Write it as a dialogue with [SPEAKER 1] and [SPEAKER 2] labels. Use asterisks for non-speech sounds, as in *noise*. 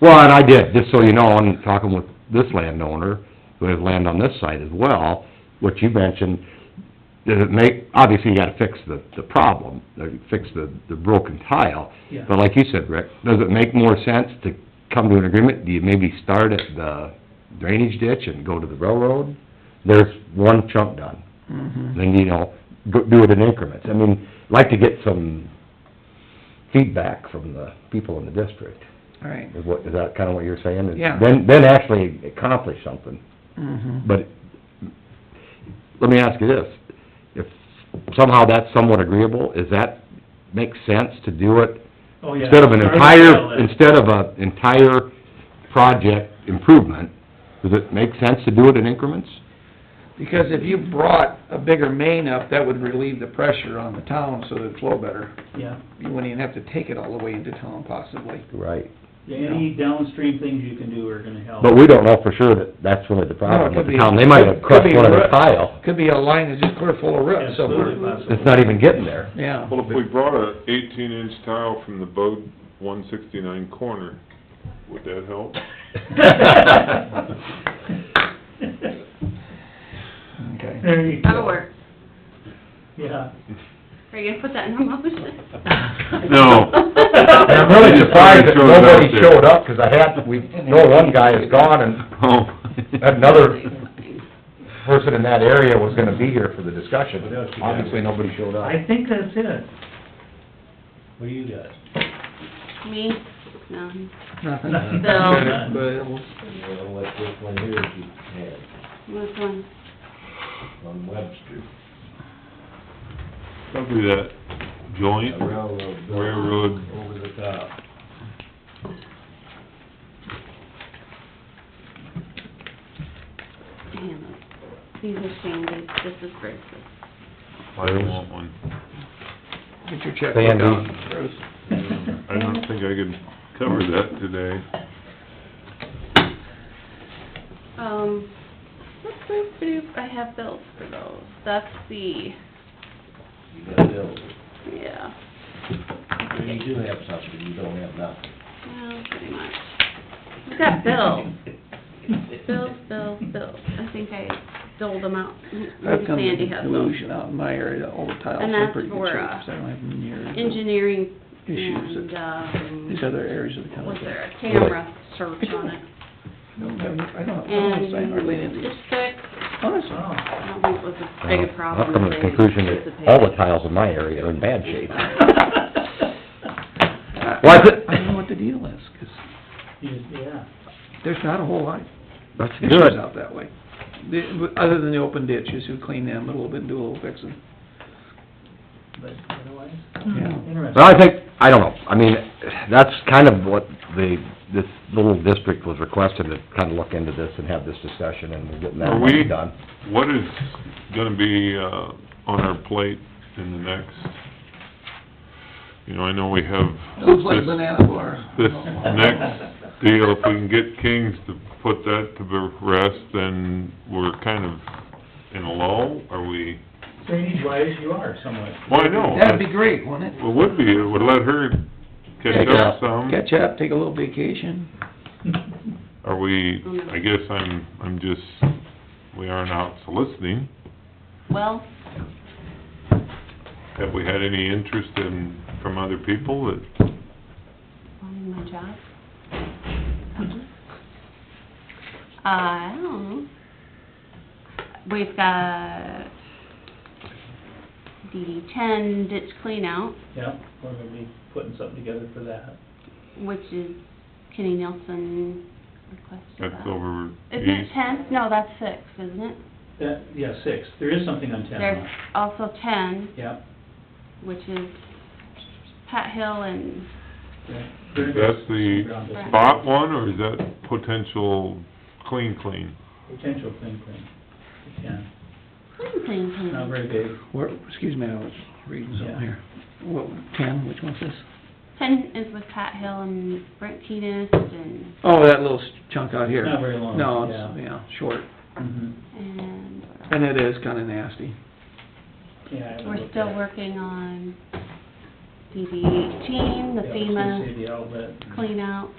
[SPEAKER 1] Well, and I did, just so you know, I'm talking with this landowner, who has land on this side as well, what you mentioned, does it make, obviously you gotta fix the, the problem, like, fix the, the broken tile.
[SPEAKER 2] Yeah.
[SPEAKER 1] But like you said, Rick, does it make more sense to come to an agreement, do you maybe start at the drainage ditch and go to the railroad? There's one chunk done, then, you know, go, do it in increments, I mean, like to get some feedback from the people in the district.
[SPEAKER 2] All right.
[SPEAKER 1] Is what, is that kinda what you're saying? Is
[SPEAKER 2] Yeah.
[SPEAKER 1] Then, then actually accomplish something,
[SPEAKER 3] Mm-hmm.
[SPEAKER 2] Mhm.
[SPEAKER 1] but, let me ask you this, if somehow that's somewhat agreeable, is that, make sense to do it?
[SPEAKER 2] Oh, yeah.
[SPEAKER 1] Instead of an
[SPEAKER 2] Sorry to tell
[SPEAKER 1] entire,
[SPEAKER 2] that.
[SPEAKER 1] instead of a entire project improvement, does it make sense to do it in increments?
[SPEAKER 3] Because if you brought a bigger main up, that would relieve the pressure on the town so it'd flow better.
[SPEAKER 2] Yeah,
[SPEAKER 3] You wouldn't even have to take it all the way into town possibly.
[SPEAKER 1] Right.
[SPEAKER 2] any downstream things you can do are gonna help.
[SPEAKER 1] But we don't know for sure that that's really the problem
[SPEAKER 3] No, it
[SPEAKER 1] with
[SPEAKER 3] could
[SPEAKER 1] the
[SPEAKER 3] be-
[SPEAKER 1] town, they might have crushed
[SPEAKER 3] could be
[SPEAKER 1] one of the
[SPEAKER 3] roots.
[SPEAKER 1] tile,
[SPEAKER 3] Could be a line that's just clear full of roots
[SPEAKER 2] Absolutely
[SPEAKER 3] somewhere.
[SPEAKER 2] possible.
[SPEAKER 1] *laughs* it's not even getting
[SPEAKER 3] *laughs*
[SPEAKER 1] there.
[SPEAKER 3] Yeah.
[SPEAKER 4] Well, if we brought a eighteen inch tile from the Bode one sixty-nine corner, would that help?
[SPEAKER 3] Okay.
[SPEAKER 2] There you
[SPEAKER 5] That'll
[SPEAKER 2] go.
[SPEAKER 5] work.
[SPEAKER 2] Yeah.
[SPEAKER 5] Are you gonna put that in a motion?
[SPEAKER 4] No.
[SPEAKER 1] And I'm really
[SPEAKER 5] *laughs*
[SPEAKER 1] surprised that
[SPEAKER 4] Somebody showed up
[SPEAKER 1] nobody
[SPEAKER 4] there.
[SPEAKER 1] showed up, 'cause I had, we, know one guy is gone, and
[SPEAKER 4] Oh.
[SPEAKER 1] another person in that area was gonna be here for the discussion. Obviously, nobody showed up.
[SPEAKER 2] I think that's it. What do you got? *laughs*
[SPEAKER 5] Me? No.
[SPEAKER 3] Nothing.
[SPEAKER 2] *laughs*
[SPEAKER 5] No.
[SPEAKER 3] But-
[SPEAKER 6] Well, like this one here, that you had
[SPEAKER 5] Which one?
[SPEAKER 6] on Webster,
[SPEAKER 4] Probably that joint
[SPEAKER 6] a railroad building
[SPEAKER 4] railroad,
[SPEAKER 6] over the top.
[SPEAKER 5] Damn, these are Sandy's, this is Bruce's.
[SPEAKER 4] I don't want one.
[SPEAKER 3] Get your checkbook out, Bruce.
[SPEAKER 4] I don't think I could cover that today.
[SPEAKER 5] Um, boop-boop-boop, I have bills for those. That's the,
[SPEAKER 6] You got bills.
[SPEAKER 5] yeah,
[SPEAKER 6] So you do have something, you don't have nothing.
[SPEAKER 5] well, pretty much. I've got bills, bills, bills, bills. I think I doled them out.
[SPEAKER 3] I've
[SPEAKER 5] Maybe
[SPEAKER 3] come to
[SPEAKER 5] Sandy
[SPEAKER 3] the
[SPEAKER 5] has them.
[SPEAKER 3] conclusion out in my area that all the tiles
[SPEAKER 5] And
[SPEAKER 3] are
[SPEAKER 5] that's
[SPEAKER 3] pretty good
[SPEAKER 5] for,
[SPEAKER 3] shape,
[SPEAKER 5] uh,
[SPEAKER 3] 'cause I don't have near
[SPEAKER 5] Engineering
[SPEAKER 3] issues
[SPEAKER 5] and,
[SPEAKER 3] that
[SPEAKER 5] um,
[SPEAKER 3] these other areas of the
[SPEAKER 5] was
[SPEAKER 3] country.
[SPEAKER 5] there a camera search
[SPEAKER 3] *laughs*
[SPEAKER 5] on it?
[SPEAKER 3] No, I don't, I don't understand hardly any of
[SPEAKER 5] And
[SPEAKER 3] these.
[SPEAKER 5] district,
[SPEAKER 3] Honestly.
[SPEAKER 2] Oh,
[SPEAKER 5] I don't think it was as big a problem.
[SPEAKER 1] I've come to
[SPEAKER 5] as
[SPEAKER 1] the
[SPEAKER 5] they
[SPEAKER 1] conclusion that all the tiles in my area are in bad shape.
[SPEAKER 3] *laughs*
[SPEAKER 1] Well, I
[SPEAKER 3] Uh, I
[SPEAKER 1] thi-
[SPEAKER 3] don't know what the deal is, 'cause
[SPEAKER 2] you- yeah.
[SPEAKER 3] there's not a whole lot of
[SPEAKER 1] That's
[SPEAKER 3] issues out that way. The- Other than the open ditches, who clean them a little bit and do a little fixing.
[SPEAKER 2] But otherwise, hmm,
[SPEAKER 3] Yeah.
[SPEAKER 1] Well,
[SPEAKER 2] interesting.
[SPEAKER 1] I think, I don't know, I mean, that's kind of what the, this little district was requested, to kind of look into this and have this discussion, and we're getting
[SPEAKER 4] Are
[SPEAKER 1] that
[SPEAKER 4] we-
[SPEAKER 1] one done.
[SPEAKER 4] What is gonna be, uh, on our plate in the next? You know, I know we have
[SPEAKER 3] Looks like
[SPEAKER 4] this-
[SPEAKER 3] banana bar.
[SPEAKER 4] this
[SPEAKER 2] *laughs*
[SPEAKER 4] next deal, if we can get Kings to put that to the rest, then we're kind of in a lull, are we?
[SPEAKER 2] Drainage wise, you are somewhat.
[SPEAKER 4] Well, I know,
[SPEAKER 3] That'd be great, wouldn't it?
[SPEAKER 4] it would be, it would let her catch up some.
[SPEAKER 3] Catch up, take a little vacation.
[SPEAKER 4] Are we, I guess I'm, I'm just, we aren't out soliciting.
[SPEAKER 5] Well,
[SPEAKER 4] Have we had any interest in, from other people that,
[SPEAKER 5] wanting my job. Uh, I don't know. We've got DD ten ditch cleanout,
[SPEAKER 2] *laughs* Yeah, we're gonna be putting something together for that.
[SPEAKER 5] which is Kenny Nelson requested
[SPEAKER 4] that's
[SPEAKER 5] that.
[SPEAKER 4] over
[SPEAKER 5] Isn't it
[SPEAKER 4] east?
[SPEAKER 5] ten? No, that's six, isn't it?
[SPEAKER 2] That, yeah, six. There is something on ten
[SPEAKER 5] There's
[SPEAKER 2] now.
[SPEAKER 5] also ten,
[SPEAKER 2] Yeah.
[SPEAKER 5] which is Pat Hill and
[SPEAKER 4] Is that the spot one, or is that potential clean, clean?
[SPEAKER 2] Potential clean clean. Yeah,
[SPEAKER 5] clean, clean,
[SPEAKER 3] Hmm.
[SPEAKER 5] clean.
[SPEAKER 2] not very big.
[SPEAKER 3] Where, excuse me, I was reading
[SPEAKER 2] Yeah.
[SPEAKER 3] something here. What, ten, which one's this?
[SPEAKER 5] Ten is with Pat Hill and Brent Keenest and,
[SPEAKER 3] Oh, that little chunk out here.
[SPEAKER 2] Not very long,
[SPEAKER 3] No, it's, yeah, short.
[SPEAKER 2] Mhm.
[SPEAKER 5] and what else?
[SPEAKER 3] And it is kinda nasty.
[SPEAKER 2] Yeah, I haven't
[SPEAKER 5] We're
[SPEAKER 2] looked at
[SPEAKER 5] still
[SPEAKER 2] it.
[SPEAKER 5] working on DD eighteen, the
[SPEAKER 2] Yeah, it's
[SPEAKER 5] FEMA
[SPEAKER 2] gonna say the outlet.
[SPEAKER 5] clean out.